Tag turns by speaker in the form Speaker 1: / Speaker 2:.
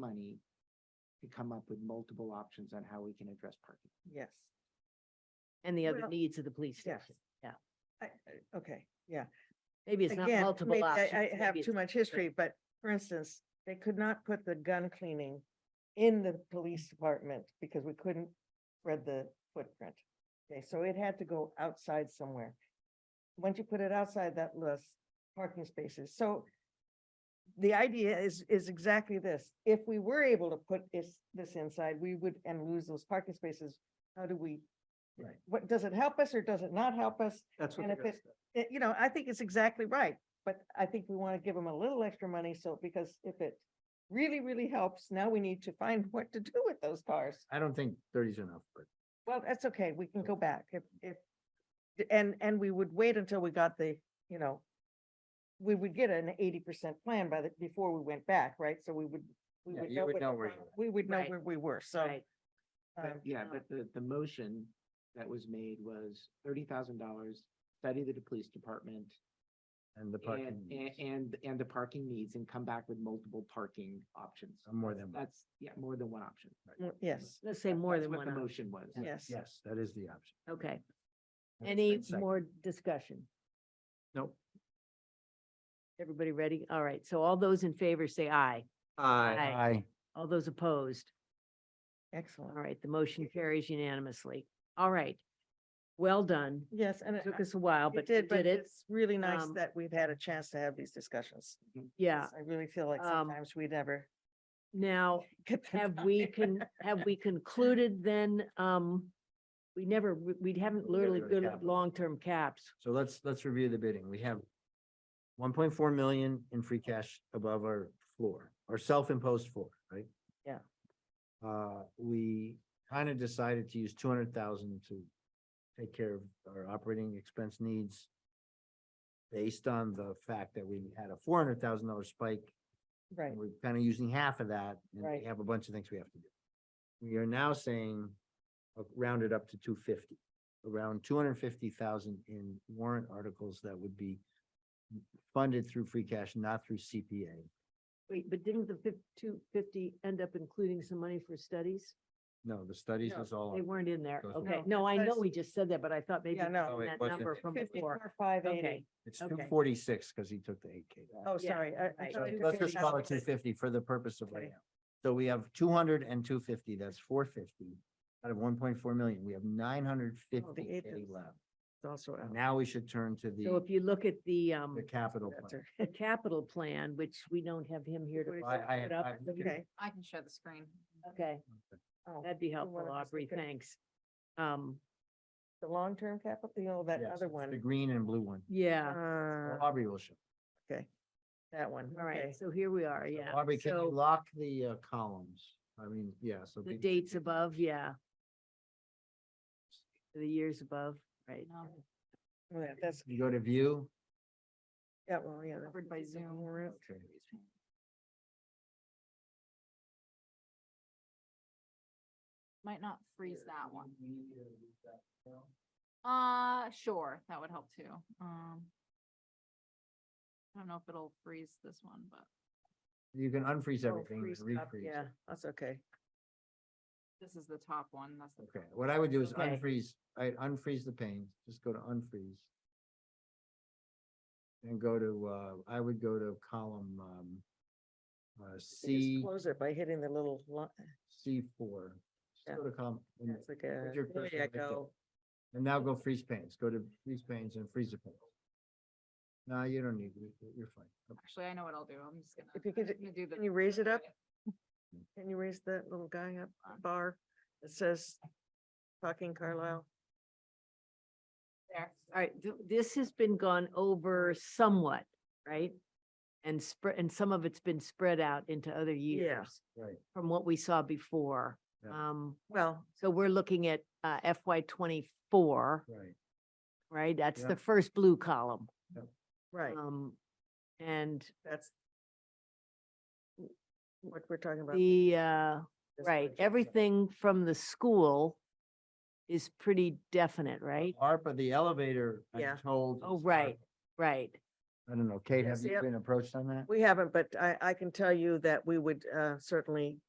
Speaker 1: money to come up with multiple options on how we can address parking.
Speaker 2: Yes,
Speaker 3: and the other
Speaker 2: Well,
Speaker 3: needs of the police
Speaker 2: yes.
Speaker 3: station. yeah.
Speaker 2: I, I- okay, yeah.
Speaker 3: Maybe it's not
Speaker 2: Again,
Speaker 3: multiple
Speaker 2: maybe
Speaker 3: options.
Speaker 2: I, I have
Speaker 3: maybe
Speaker 2: too
Speaker 3: it's-
Speaker 2: much history, but for instance, they could not put the gun cleaning in the police department because we couldn't spread the footprint. Okay, so it had to go outside somewhere. Once you put it outside that list, parking spaces, so the idea is, is exactly this. If we were able to put this, this inside, we would, and lose those parking spaces, how do we?
Speaker 1: Right.
Speaker 2: What, does it help us or does it not help us?
Speaker 1: That's
Speaker 2: And if it, it- eh, you know, I think it's exactly right, but I think we want to give them a little extra money, so, because if it really, really helps, now we need to find what to do with those cars.
Speaker 1: I don't think thirty's enough, but
Speaker 2: Well, that's okay, we can go back if, if, and, and we would wait until we got the, you know, we would get an eighty percent plan by the, before we went back, right? So we would, we
Speaker 1: Yeah,
Speaker 2: would
Speaker 1: you
Speaker 2: know.
Speaker 1: would
Speaker 2: what-
Speaker 1: know where you were.
Speaker 2: We would know
Speaker 3: Right.
Speaker 2: where we were, so.
Speaker 3: Right,
Speaker 1: But
Speaker 2: um,
Speaker 1: yeah,
Speaker 3: no.
Speaker 1: but the, the motion that was made was thirty thousand dollars, study to the police department.
Speaker 4: And the
Speaker 1: And,
Speaker 4: parking,
Speaker 1: and,
Speaker 4: needs.
Speaker 1: and, and the parking needs and come back with multiple parking options.
Speaker 4: Uh, more than one.
Speaker 1: That's, yeah, more than one option.
Speaker 2: mm, Yes,
Speaker 3: let's say more
Speaker 1: That's
Speaker 3: than
Speaker 1: what
Speaker 3: one.
Speaker 1: The
Speaker 3: option.
Speaker 1: motion was.
Speaker 2: yes.
Speaker 4: yes, that is the option.
Speaker 3: Okay.
Speaker 4: That's
Speaker 3: Any
Speaker 4: my second.
Speaker 3: more discussion?
Speaker 4: Nope.
Speaker 3: Everybody ready? All right. So all those in favor say aye. Aye.
Speaker 4: Aye.
Speaker 3: All those opposed?
Speaker 2: Excellent.
Speaker 3: All right, the motion carries unanimously. All right. Well done.
Speaker 2: Yes, and.
Speaker 3: It
Speaker 2: I-
Speaker 3: took us a while,
Speaker 2: It
Speaker 3: but we
Speaker 2: did,
Speaker 3: did
Speaker 2: but
Speaker 3: it.
Speaker 2: it's really nice
Speaker 3: Um,
Speaker 2: that we've had a chance to have these discussions.
Speaker 3: Yeah.
Speaker 2: 'cause I really feel like
Speaker 3: Um,
Speaker 2: sometimes we never
Speaker 3: Now,
Speaker 2: get. the
Speaker 3: have we
Speaker 2: time.
Speaker 3: can, have we concluded then, um, we never, we we haven't
Speaker 4: We never
Speaker 3: literally,
Speaker 4: go to
Speaker 3: good
Speaker 4: capital.
Speaker 3: long-term caps.
Speaker 4: So let's, let's review the bidding. We have one point four million in free cash above our floor, our self-imposed floor, right?
Speaker 2: Yeah.
Speaker 4: Uh, we kind of decided to use two hundred thousand to take care of our operating expense needs based on the fact that we had a four hundred thousand dollar spike
Speaker 2: Right,
Speaker 4: and We're kind of using half of that, and
Speaker 2: Right.
Speaker 4: we have a bunch of things we have to do. We are now saying, uh, round it up to two fifty, around two hundred and fifty thousand in warrant articles that would be funded through free cash, not through CPA.
Speaker 3: Wait, but didn't the fif- two fifty end up including some money for studies?
Speaker 4: No, the studies is all,
Speaker 3: They
Speaker 4: on-
Speaker 3: weren't in there.
Speaker 4: Those were-
Speaker 3: Okay,
Speaker 2: No,
Speaker 3: no, I know
Speaker 2: that's-
Speaker 3: we just said that, but I thought maybe
Speaker 2: Yeah,
Speaker 3: it
Speaker 2: no.
Speaker 3: was
Speaker 4: No,
Speaker 3: in
Speaker 4: it
Speaker 3: that
Speaker 4: wasn't.
Speaker 3: number from before.
Speaker 2: fifty-four, five
Speaker 3: Okay,
Speaker 2: eighty.
Speaker 4: it's
Speaker 3: okay.
Speaker 4: two forty-six, because he took the eight K.
Speaker 2: Oh,
Speaker 3: Yeah,
Speaker 2: sorry. I- I
Speaker 3: right.
Speaker 2: thought
Speaker 3: So
Speaker 2: you
Speaker 4: Let's
Speaker 2: said
Speaker 4: just call it
Speaker 2: something.
Speaker 4: two fifty for the purpose of
Speaker 2: Okay.
Speaker 4: right now. So we have 200 and 250. that's four fifty, out of one point four million, we have nine hundred fifty
Speaker 2: eight
Speaker 4: K
Speaker 2: is-
Speaker 4: left.
Speaker 2: Oh, It's Also. out.
Speaker 4: Now we should turn to
Speaker 3: So
Speaker 4: the,
Speaker 3: if you look at the, um,
Speaker 4: the capital plan.
Speaker 2: That's her.
Speaker 3: the capital plan, which we don't have him here to.
Speaker 2: What is
Speaker 4: I,
Speaker 3: put
Speaker 4: I,
Speaker 3: up.
Speaker 4: I-
Speaker 2: Okay.
Speaker 5: I can share the screen.
Speaker 3: Okay,
Speaker 2: Oh,
Speaker 3: that'd be
Speaker 2: one
Speaker 3: helpful,
Speaker 2: of us
Speaker 3: Aubrey,
Speaker 2: look at-
Speaker 3: thanks. Um,
Speaker 2: The long-term capital, you know, that
Speaker 4: yes,
Speaker 2: other
Speaker 4: it's The
Speaker 2: one.
Speaker 4: green and blue one.
Speaker 3: yeah,
Speaker 4: Well,
Speaker 2: Uh,
Speaker 4: Aubrey will show.
Speaker 2: that one.
Speaker 3: all
Speaker 2: okay.
Speaker 3: right, so here we are,
Speaker 4: So
Speaker 3: yeah.
Speaker 4: Aubrey, can you
Speaker 3: So
Speaker 4: lock the uh, columns? I mean, yeah, so.
Speaker 3: the
Speaker 4: be-
Speaker 3: dates above, yeah. The years above, right,
Speaker 5: No,
Speaker 2: Oh, yeah, That's,
Speaker 4: You go to view.
Speaker 2: yeah, well, yeah. that-
Speaker 5: Covered by
Speaker 2: that's a
Speaker 5: Zoom.
Speaker 2: warrant.
Speaker 4: Okay.
Speaker 5: Might not freeze that one. Uh, sure, that would help too. Um. I don't know if it'll freeze this one, but
Speaker 4: You can unfreeze
Speaker 2: Oh,
Speaker 4: everything and
Speaker 2: freeze up,
Speaker 4: refreeze.
Speaker 2: Yeah, that's okay.
Speaker 5: this is the top one. That's the.
Speaker 4: Okay, what I would do is
Speaker 3: Okay.
Speaker 4: unfreeze, I unfreeze the pane, just go to unfreeze. And go to, uh, I would go to column, um, uh,
Speaker 2: You just
Speaker 4: C,
Speaker 2: Close it by hitting the little, lo-
Speaker 4: C four.
Speaker 2: Yeah.
Speaker 4: Just go to column. and
Speaker 2: it's like a,
Speaker 4: your
Speaker 2: there
Speaker 4: cursor
Speaker 2: you
Speaker 4: right there.
Speaker 2: go.
Speaker 4: And now go freeze panes, go to freeze panes and freeze the panes. No, you don't need, it. You- you're fine. Oh, Okay.
Speaker 5: Actually, I know what I'll do. I'm just gonna.
Speaker 2: If you could-
Speaker 5: I'm gonna do the-
Speaker 2: can you raise it up? Can you raise that little guy up,
Speaker 3: Uh.
Speaker 2: bar that says fucking Carlisle?
Speaker 5: There.
Speaker 3: all right, th- this has been gone over somewhat, right? And spread, and some of it's been spread out into other years
Speaker 4: Right.
Speaker 3: from what we saw before.
Speaker 4: Yeah.
Speaker 3: Um,
Speaker 2: Well,
Speaker 3: so we're looking at uh, FY twenty-four,
Speaker 4: Right.
Speaker 3: right? That's
Speaker 4: Yeah.
Speaker 3: the first blue column.
Speaker 2: right,
Speaker 3: Um, and
Speaker 2: that's what we're talking about.
Speaker 3: the, uh,
Speaker 2: this
Speaker 3: right,
Speaker 2: budget, so-
Speaker 3: everything from the school is
Speaker 4: Uh-huh.
Speaker 3: pretty definite, right?
Speaker 4: ARPA, the elevator,
Speaker 2: Yeah.
Speaker 4: I'm told.
Speaker 3: Oh,
Speaker 4: is
Speaker 3: right,
Speaker 4: ARPA.
Speaker 3: right.
Speaker 4: I don't know, Kate, have
Speaker 2: Yes,
Speaker 4: you
Speaker 2: yep.
Speaker 4: been approached on that?
Speaker 2: We haven't, but I, I can tell you that we would, uh, certainly